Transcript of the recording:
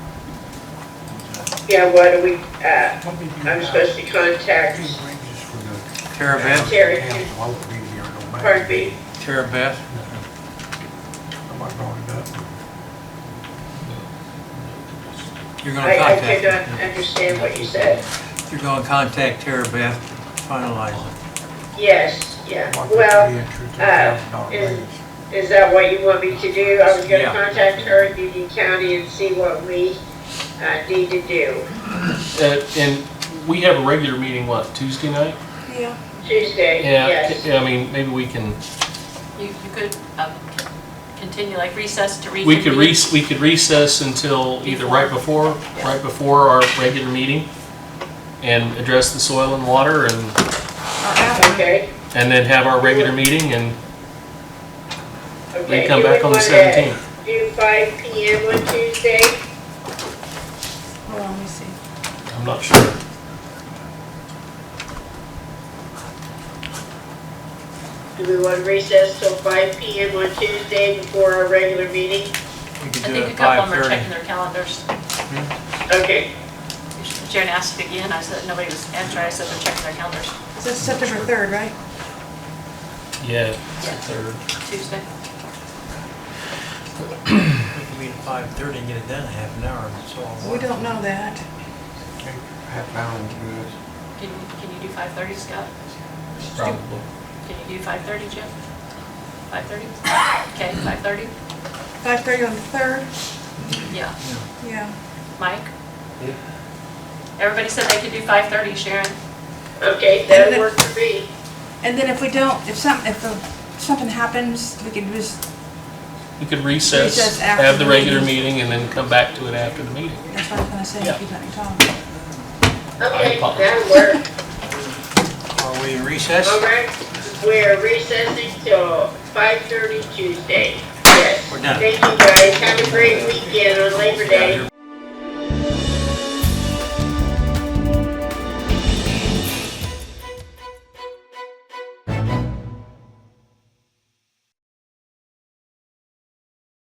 Yeah, why do we, uh, I'm supposed to contact Tara Beth, Terry, Pardon pardon me? Tara Beth, Am I going up? you're gonna I, I contact, cannot understand what you said. you're gonna contact Tara Beth to finalize Yes, yeah, Like well, the entry, $2,000 is- raise. is that what you want me to do? I was gonna Yeah. contact her in Union County and see what we, uh, need to do. Uh, And we have a regular meeting, what, Tuesday night? Yeah. Tuesday, yes. Yeah, I mean, maybe we can, You, you could, um, continue like recess to reconvene. we could re, we could recess until either right before, right before our regular meeting and address the soil and water and, Okay, and then have our regular meeting and okay. we come Do back on the wanna 17th. Do five P M on Tuesday? Hold on, let me see. I'm not sure. Do we want to recess till five P M on Tuesday before our regular meeting? it. We could I do think it a at couple of them 5:30. are checking their calendars. Okay, Sharon asked again, I said, nobody was answering, I said they're checking their calendars So it's September 3rd, right? Yeah, it's the third. Tuesday. We could meet at 5:30 and get it done in half an hour, and so on. We don't know that. Half hour uh, will do it. Can, you- can you do five thirty, Scott? probably. Can you do five thirty, Jim? Five thirty? Okay, five thirty? 5:30 on the 3rd? Yeah. Yeah. Mike? Everybody said they could do five thirty, Sharon. okay, that'll work for me. And then if we don't, if some, if uh, something happens, we can just, We could recess, Recess after have the the regular meeting. meeting and then come back to it after the meeting. that's what I was gonna say, Yeah. if you let me talk. Okay, Alright, Paul. that'll work. Are we in recess? All right, we're recessing till five thirty Tuesday. Yes. We're done. Thank you guys, have a great